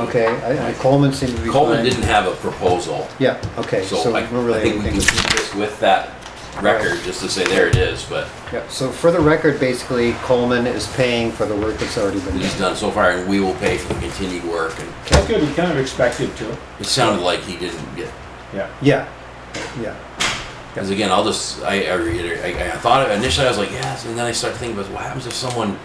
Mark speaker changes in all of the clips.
Speaker 1: Okay, I- I- Coleman seemed to be fine.
Speaker 2: Coleman didn't have a proposal,
Speaker 1: Yeah, okay, so
Speaker 2: so I
Speaker 1: we don't really
Speaker 2: I think we
Speaker 1: anything.
Speaker 2: can keep this with that record, just to say there it is, but
Speaker 1: Yeah, so for the record, basically Coleman is paying for the work that's already been
Speaker 2: he's
Speaker 1: done.
Speaker 2: done so far, and we will pay for the continued work, and
Speaker 3: That's good, we kind of expected to.
Speaker 2: it sounded like he didn't get,
Speaker 3: Yeah.
Speaker 1: Yeah, yeah,
Speaker 2: because again, I'll just, I, I reiterate, I, I thought, initially I was like, yes, and then I started thinking, about what happens if someone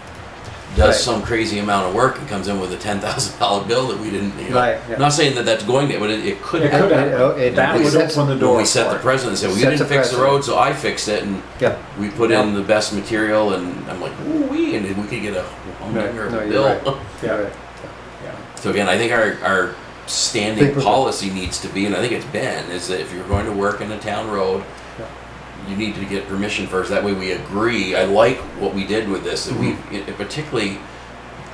Speaker 1: Right.
Speaker 2: does some crazy amount of work and comes in with a ten thousand dollar bill that we didn't, you know?
Speaker 1: Right, yeah.
Speaker 2: I'm Not saying that that's going to, but it, it could
Speaker 3: It
Speaker 2: happen.
Speaker 3: could
Speaker 1: it- oh, it-
Speaker 3: happen. That
Speaker 1: it
Speaker 3: would
Speaker 1: sets-
Speaker 3: open the
Speaker 2: When
Speaker 3: door
Speaker 2: we set
Speaker 3: for
Speaker 2: the
Speaker 3: it.
Speaker 2: precedent, and said, well, you
Speaker 1: Set the
Speaker 2: didn't fix the
Speaker 1: precedent.
Speaker 2: road, so I fixed it, and
Speaker 1: yeah.
Speaker 2: we put
Speaker 1: Yeah.
Speaker 2: in the best material, and I'm like, ooh wee, and we could get a humdinger
Speaker 1: No,
Speaker 2: of a
Speaker 1: you're
Speaker 2: bill.
Speaker 1: right.
Speaker 3: Yeah.
Speaker 1: Right.
Speaker 3: Yeah.
Speaker 2: So again, I think our, our
Speaker 1: Think
Speaker 2: standing
Speaker 1: we're-
Speaker 2: policy needs to be, and I think it's been, is that if you're going to work in a town road, you need to get permission first. That way we agree. I like what we did with this, that we,
Speaker 1: Mm-hmm.
Speaker 2: it- it particularly,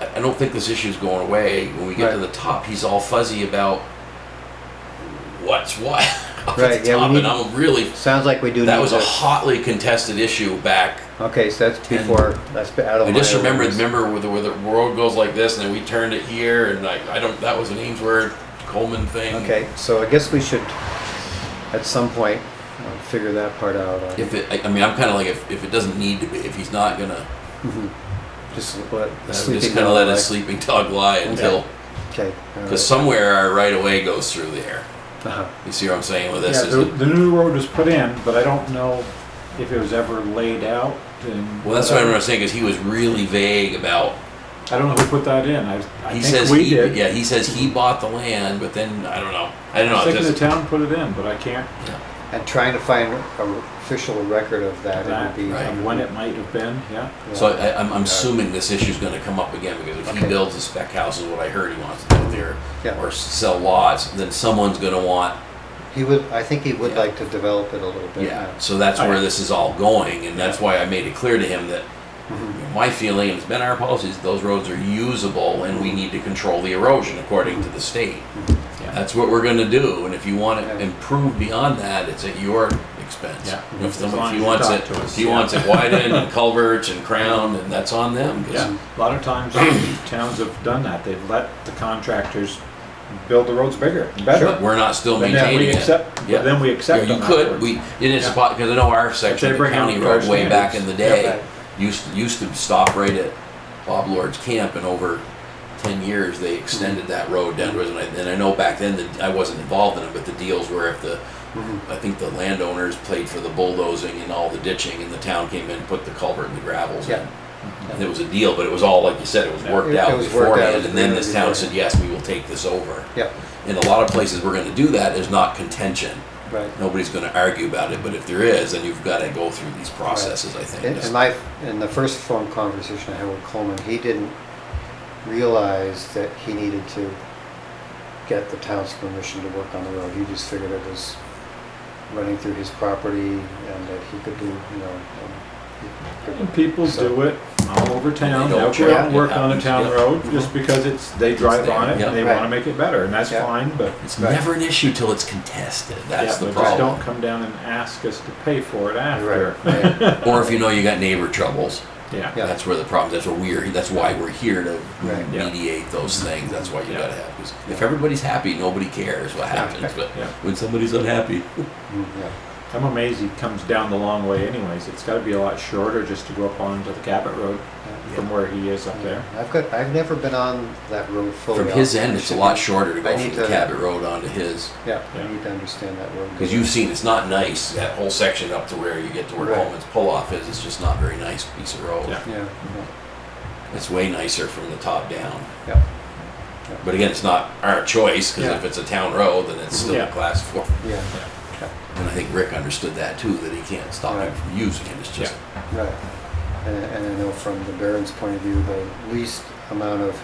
Speaker 2: I I don't think this issue's going away. When we get to
Speaker 1: Right.
Speaker 2: the top, he's all fuzzy about what's what up
Speaker 1: Right,
Speaker 2: at the
Speaker 1: yeah, we
Speaker 2: top,
Speaker 1: need-
Speaker 2: and I'm really,
Speaker 1: Sounds like we do need
Speaker 2: that was a
Speaker 1: to,
Speaker 2: hotly contested issue back
Speaker 1: okay, so that's before, that's been out of
Speaker 2: I
Speaker 1: my.
Speaker 2: just remember,
Speaker 1: awareness.
Speaker 2: remember where the, where the world goes like this, and then we turned it here, and like I don't. That was an Ainsworth Coleman thing.
Speaker 1: Okay, so I guess we should, at some point, uh, figure that part out. uh,
Speaker 2: If it, I, I mean, I'm kind of like if, if it doesn't need to be, if he's not gonna,
Speaker 1: Just let the
Speaker 2: just
Speaker 1: sleeping.
Speaker 2: kind of let
Speaker 1: dog,
Speaker 2: a
Speaker 1: like-
Speaker 2: sleeping dog lie until
Speaker 1: Okay. all
Speaker 2: because
Speaker 1: right.
Speaker 2: somewhere our right of way goes through there.
Speaker 1: Uh-huh.
Speaker 2: You see what I'm saying with this?
Speaker 3: Yeah,
Speaker 2: is
Speaker 3: the,
Speaker 2: that-
Speaker 3: the new road was put in, but I don't know if it was ever laid out and.
Speaker 2: well, that's what I'm saying because he was really vague about.
Speaker 3: I don't know who put that in. I, I
Speaker 2: He
Speaker 3: think
Speaker 2: says
Speaker 3: we
Speaker 2: he,
Speaker 3: did.
Speaker 2: yeah, he says he bought the land, but then I don't know. I don't
Speaker 3: I
Speaker 2: know.
Speaker 3: think the
Speaker 2: Just,
Speaker 3: town put it in, but I can't,
Speaker 1: And trying to find an official record of that, it would
Speaker 3: that,
Speaker 1: be.
Speaker 2: Right.
Speaker 3: and when it might have been, yeah.
Speaker 1: yeah.
Speaker 2: so I, I'm, I'm assuming this issue's going to come up again because if
Speaker 1: Okay.
Speaker 2: he builds a spec house, is what I heard he wants to do there.
Speaker 1: Yeah,
Speaker 2: or sell lots, then someone's gonna want,
Speaker 1: he would, I think he would
Speaker 2: Yeah.
Speaker 1: like to develop it a little bit.
Speaker 2: yeah. So that's where this is all going, and that's why I made it clear to him that
Speaker 1: Mhm.
Speaker 2: my feeling, and it's been our policies, those roads are usable and we need to control the erosion according to the state.
Speaker 3: Yeah.
Speaker 2: That's what we're gonna do, and if you wanna
Speaker 1: Mm-hmm. Yeah.
Speaker 2: improve beyond that, it's at your expense.
Speaker 3: Yeah.
Speaker 2: If
Speaker 3: As long
Speaker 2: someone, if
Speaker 3: as
Speaker 2: he
Speaker 3: you
Speaker 2: wants
Speaker 3: talk
Speaker 2: it,
Speaker 3: to us,
Speaker 2: if he
Speaker 3: yeah.
Speaker 2: wants it widened and culverts and crowned, and that's on them, 'cause-
Speaker 3: Yeah, a lot of times towns have done that. They've let the contractors build the roads bigger, and
Speaker 2: But
Speaker 3: better.
Speaker 2: we're not still
Speaker 3: And then
Speaker 2: maintaining
Speaker 3: we
Speaker 2: it.
Speaker 3: accept, but
Speaker 2: Yeah.
Speaker 3: then we accept
Speaker 2: Yeah,
Speaker 3: them
Speaker 2: you could.
Speaker 3: afterwards.
Speaker 2: We it is
Speaker 3: Yeah.
Speaker 2: a pot because I know our section,
Speaker 3: they
Speaker 2: of the
Speaker 3: bring
Speaker 2: county
Speaker 3: out
Speaker 2: road,
Speaker 3: our
Speaker 2: way back in
Speaker 3: standards.
Speaker 2: the
Speaker 1: Yeah,
Speaker 2: day,
Speaker 1: right.
Speaker 2: used used to stop right at Bob Lord's camp, and over ten years they extended that road downwards. And I, and I know back then that I wasn't involved in it, but the deals were if the I think the landowners played for the bulldozing and all the ditching, and the town came in and put the culvert and the gravels
Speaker 1: Yeah.
Speaker 2: in. And it was a deal, but it was all like you said, it was
Speaker 3: Yeah.
Speaker 2: worked
Speaker 1: It-
Speaker 2: out
Speaker 1: it was worked out, it
Speaker 2: beforehand,
Speaker 1: was
Speaker 2: and then
Speaker 1: agreed
Speaker 2: this
Speaker 1: on
Speaker 2: town
Speaker 1: beforehand.
Speaker 2: said, "Yes, we will take this over."
Speaker 1: Yeah,
Speaker 2: In a lot of places, we're going to do that. There's not contention
Speaker 1: right.
Speaker 2: nobody's going to argue about it, but if there is, then you've got to go through these processes, I think.
Speaker 1: In, in my, in the first phone conversation I had with Coleman, he didn't realize that he needed to get the town's permission to work on the road. He just figured it was running through his property and that he could do, you know. um,
Speaker 3: And people
Speaker 1: So-
Speaker 3: do it all over
Speaker 2: They don't
Speaker 3: town. They'll go out and
Speaker 2: check.
Speaker 3: work on a
Speaker 2: It
Speaker 3: town
Speaker 2: happens,
Speaker 3: road just because it's, they drive
Speaker 2: there,
Speaker 3: on it
Speaker 2: yeah.
Speaker 3: and they want
Speaker 1: Right.
Speaker 3: to make it better and that's
Speaker 1: Yeah.
Speaker 3: fine, but.
Speaker 2: It's
Speaker 1: Right.
Speaker 2: never an issue till it's contested. That's
Speaker 3: yeah,
Speaker 2: the
Speaker 3: but Just don't
Speaker 2: problem.
Speaker 3: come down and ask us to pay for it after.
Speaker 1: Right, right.
Speaker 2: Or if you know you got neighbor troubles,
Speaker 1: Yeah.
Speaker 3: Yeah,
Speaker 2: that's where the problem. That's where we're. That's why we're here to
Speaker 1: Right.
Speaker 3: Yeah.
Speaker 2: mediate those things. That's why you
Speaker 3: Yeah.
Speaker 2: got to have. Because if everybody's happy, nobody cares what happens. But
Speaker 3: Yeah.
Speaker 2: when somebody's unhappy,
Speaker 1: Mm, yeah.
Speaker 3: I'm amazed he comes down the long way anyways. It's gotta be a lot shorter just to go up onto the Cabot Road from where he is up there.
Speaker 1: I've got, I've never been on that road fully.
Speaker 2: from his
Speaker 1: I'll-
Speaker 2: end,
Speaker 1: I
Speaker 2: it's a
Speaker 1: should
Speaker 2: lot
Speaker 1: be-
Speaker 2: shorter to
Speaker 1: I
Speaker 2: go
Speaker 1: need
Speaker 2: from the
Speaker 1: to-
Speaker 2: Cabot Road onto his.
Speaker 1: Yeah,
Speaker 3: Yeah.
Speaker 1: I need to understand that road.
Speaker 2: Because you've seen, it's not nice that whole section up to where you get to where
Speaker 1: Right.
Speaker 2: Coleman's pull off is. It's just not a very nice piece of road.
Speaker 3: Yeah.
Speaker 1: Yeah,
Speaker 2: It's way nicer from the top down.
Speaker 1: yeah, yeah,
Speaker 2: But again, it's not our choice because
Speaker 3: Yeah.
Speaker 2: if it's a town road, then it's still
Speaker 3: Yeah.
Speaker 2: a class four.
Speaker 1: yeah,
Speaker 2: And I think Rick understood that too, that he can't stop him from using it. It's just
Speaker 1: right. And, and I know from the Baron's point of view, the least amount of,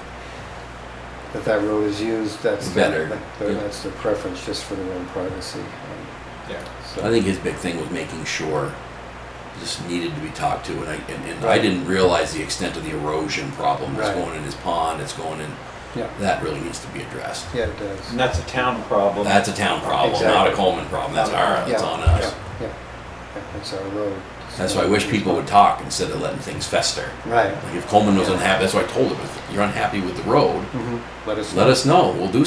Speaker 1: that that road is used, that's. the-
Speaker 2: Better,
Speaker 1: that- the-
Speaker 2: yeah.
Speaker 1: That's the preference, just for their own privacy. um,
Speaker 3: Yeah.
Speaker 1: so-
Speaker 2: I think his big thing was making sure this needed to be talked to, and I and, and I
Speaker 1: Right.
Speaker 2: didn't realize the extent of the erosion problem. It's
Speaker 1: Right.
Speaker 2: going in his pond. It's going in.
Speaker 1: Yeah,
Speaker 2: That really needs to be addressed.
Speaker 1: yeah, it does.
Speaker 3: And that's a town problem.
Speaker 2: That's a town problem, not a
Speaker 1: Exactly.
Speaker 2: Coleman problem. That's our.
Speaker 1: Yeah,
Speaker 2: That's on us.
Speaker 1: Yeah, yeah, yeah, that's our road,
Speaker 2: That's why I wish people would talk instead of letting things fester.
Speaker 1: Right.
Speaker 2: Like if Coleman was unhappy, that's why I told him, if you're unhappy with the road,
Speaker 1: Mhm. Let us know.
Speaker 2: let us know. We'll do